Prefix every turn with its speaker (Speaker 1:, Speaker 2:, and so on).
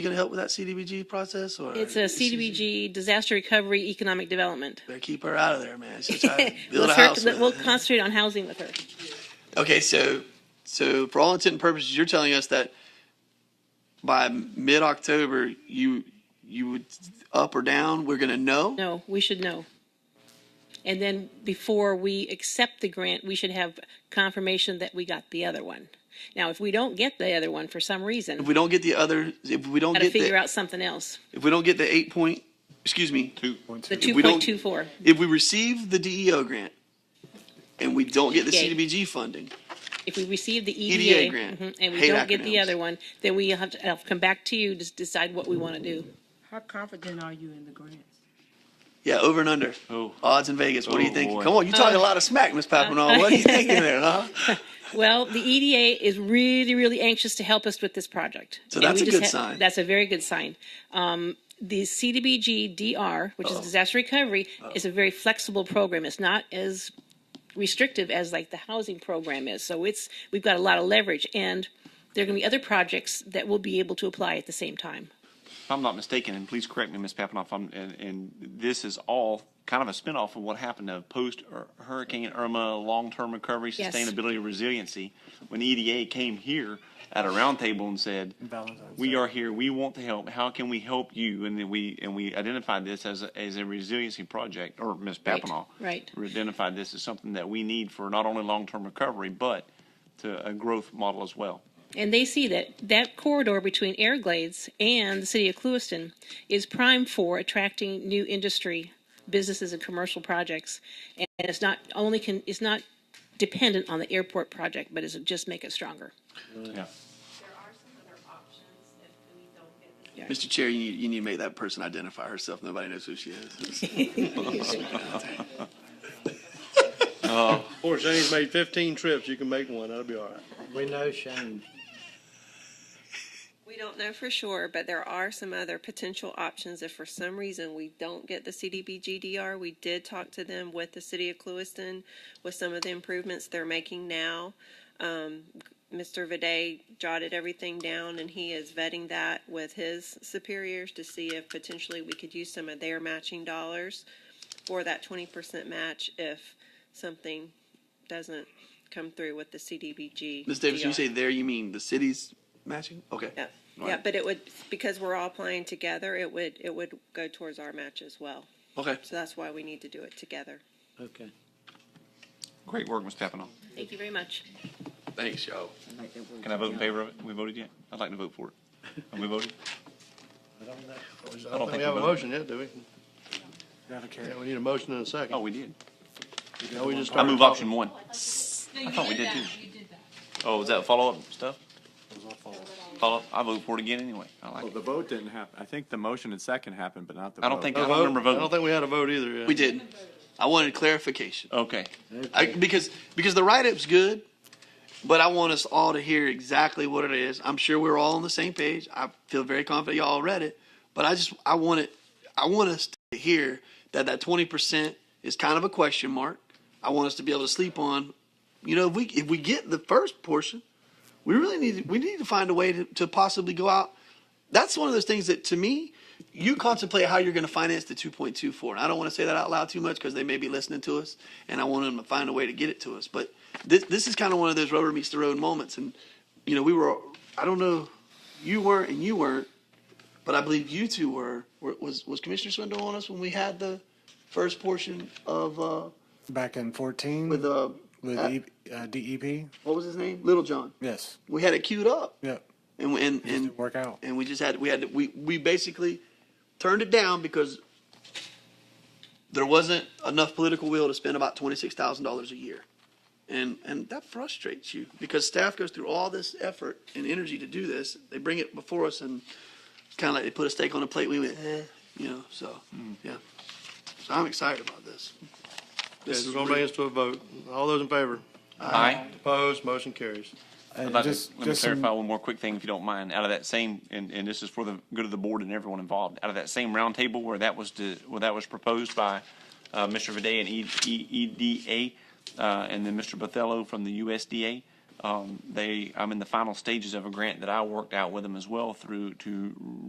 Speaker 1: You gonna help with that CDBG process or?
Speaker 2: It's a CDBG, Disaster Recovery Economic Development.
Speaker 1: Better keep her out of there, man. She's trying to build a
Speaker 2: Let's her-
Speaker 1: house with
Speaker 2: We'll
Speaker 1: it.
Speaker 2: concentrate on housing with her.
Speaker 1: Okay, so, so for all intent and purposes, you're telling us that by mid-October, you, you would, up or down, we're gonna know?
Speaker 2: No, we should know. And then before we accept the grant, we should have confirmation that we got the other one. Now, if we don't get the other one for some
Speaker 1: If
Speaker 2: reason,
Speaker 1: we don't get the other, if we don't
Speaker 2: got to
Speaker 1: get
Speaker 2: figure
Speaker 1: the,
Speaker 2: out something else.
Speaker 1: if we don't get the eight point, excuse me,
Speaker 2: The
Speaker 1: If we don't-
Speaker 2: 2.24.
Speaker 1: if we receive the DEO grant and we don't get the
Speaker 2: Okay.
Speaker 1: CDBG funding,
Speaker 2: If we receive the
Speaker 1: EDA
Speaker 2: EDA
Speaker 1: E grant.
Speaker 2: mhm, and we
Speaker 1: Hate
Speaker 2: don't get the
Speaker 1: acronyms.
Speaker 2: other one, then we have to, I'll come back to you to decide what we want to do.
Speaker 3: How confident are you in the grants?
Speaker 1: yeah, over and under.
Speaker 4: Oh.
Speaker 1: Odds in Vegas, what do you
Speaker 4: Oh,
Speaker 1: think?
Speaker 4: boy.
Speaker 1: Come on, you talking a lot of smack, Miss Papineau. What are you thinking there, huh?
Speaker 2: Well, the EDA is really, really anxious to help us with this project.
Speaker 1: So
Speaker 2: And
Speaker 1: that's
Speaker 2: we
Speaker 1: a
Speaker 2: just
Speaker 1: good sign.
Speaker 2: That's a very good sign. Um, the CDBG DR, which
Speaker 1: Oh.
Speaker 2: is disaster recovery, is a very flexible program. It's not as restrictive as like the housing program is. So it's we've got a lot of leverage, and there are going to be other projects that will be able to apply at the same time.
Speaker 4: If I'm not mistaken, and please correct me, Ms. Papanoff, I'm, and, and this is all kind of a spinoff of what happened to post Hur- Hurricane Irma, long-term recovery,
Speaker 2: Yes.
Speaker 4: sustainability, resiliency, when EDA came here at a roundtable and said, "We are here. We want to help. How can we help you?" And then we and we identified this as a, as a resiliency project, or Ms.
Speaker 2: Right,
Speaker 4: Papanoff,
Speaker 2: right.
Speaker 4: we identified this as something that we need for not only long-term recovery but to a growth model as well.
Speaker 2: And they see that that corridor between Airglades and the city of Clewiston is prime for attracting new industry, businesses and commercial projects. And it's not only can, it's not dependent on the airport project, but it's just make it stronger.
Speaker 4: Yeah.
Speaker 5: there are some other options if we don't get the
Speaker 1: Mr. Chair, you, you need to make that person identify herself. Nobody knows who she is.
Speaker 6: Of course, Shane's made fifteen trips, you can make one, that'll be all right.
Speaker 7: We know Shane.
Speaker 5: We don't know for sure, but there are some other potential options if for some reason we don't get the CDBGDR. We did talk to them with the city of Clewiston with some of the improvements they're making now. Um, Mr. Viday jotted everything down and he is vetting that with his superiors to see if potentially we could use some of their matching dollars for that twenty percent match if something doesn't come through with the CDBG.
Speaker 1: Ms. Davis, you
Speaker 5: DR.
Speaker 1: say there, you mean the city's matching? Okay.
Speaker 5: Yeah,
Speaker 1: All
Speaker 5: yeah,
Speaker 1: right.
Speaker 5: but it would, because we're all playing together, it would, it would go towards our match as well.
Speaker 1: Okay.
Speaker 5: So that's why we need to do it together.
Speaker 7: Okay.
Speaker 4: Great work, Ms. Papanoff.
Speaker 2: Thank you very much.
Speaker 1: Thanks, y'all.
Speaker 4: Can I vote in favor of it? We voted yet? I'd like to vote for it. Have we voted?
Speaker 6: I don't
Speaker 4: I
Speaker 6: know. I
Speaker 4: don't
Speaker 6: don't
Speaker 4: think
Speaker 6: think we have
Speaker 4: we voted.
Speaker 6: a motion yet, do we? Yeah, we need a motion and a second.
Speaker 4: Oh, we did.
Speaker 6: Now we just
Speaker 4: I move
Speaker 6: started
Speaker 4: option one. I thought we did too. Oh, is that follow-up stuff? Follow-up? I vote for it again anyway. I like
Speaker 8: Well,
Speaker 4: it.
Speaker 8: the vote didn't happen. I think the motion and second happened, but not the vote.
Speaker 4: I don't think, I
Speaker 6: talking.
Speaker 4: don't remember
Speaker 6: I don't
Speaker 4: voting.
Speaker 6: think we had a vote either, yeah.
Speaker 1: We did. I wanted clarification.
Speaker 4: Okay.
Speaker 1: I, because because the write up's good, but I want us all to hear exactly what it is. I'm sure we're all on the same page. I feel very confident y'all all read it, but I just I want it. I want us to hear that that 20 percent is kind of a question mark. I want us to be able to sleep on. You know, if we if we get the first portion, we really need we need to find a way to, to possibly go out. That's one of those things that to me. You contemplate how you're going to finance the 2.24. And I don't want to say that out loud too much because they may be listening to us, and I want them to find a way to get it to us. But this this is kind of one of those rubber meets the road moments. And you know, we were I don't know, you weren't and you weren't, but I believe you two were. were was was Commissioner Swindle on us when we had the first portion of uh,
Speaker 9: Back in fourteen
Speaker 1: with uh,
Speaker 9: with
Speaker 1: uh,
Speaker 9: E- uh, DEP.
Speaker 1: what was his name? Little John.
Speaker 9: Yes.
Speaker 1: We had it queued up,
Speaker 9: Yep.
Speaker 1: and and
Speaker 9: Just
Speaker 1: and
Speaker 9: didn't work out.
Speaker 1: and we just had we had to, we we basically turned it down because there wasn't enough political will to spend about twenty six thousand dollars a year, and and that frustrates you because staff goes through all this effort and energy to do this. They bring it before us and kind of like they put a steak on a plate. We went, eh, you know, so yeah. So I'm excited about this.
Speaker 6: Hmm. Yeah, it's gonna bring us to a vote. All those in favor?
Speaker 4: Aye.
Speaker 6: Opposed, motion carries.
Speaker 9: And
Speaker 4: I'd like to-
Speaker 9: just
Speaker 4: Let me
Speaker 9: just
Speaker 4: clarify
Speaker 9: some,
Speaker 4: one more quick thing, if you don't mind. Out of that same, and, and this is for the good of the board and everyone involved, out of that same roundtable where that was, to- where that was proposed by uh, Mr. Viday and E- E- EDA, uh, and then Mr. Bothello from the USDA, um, they, I'm in the final stages of a grant that I worked out with them as well through, to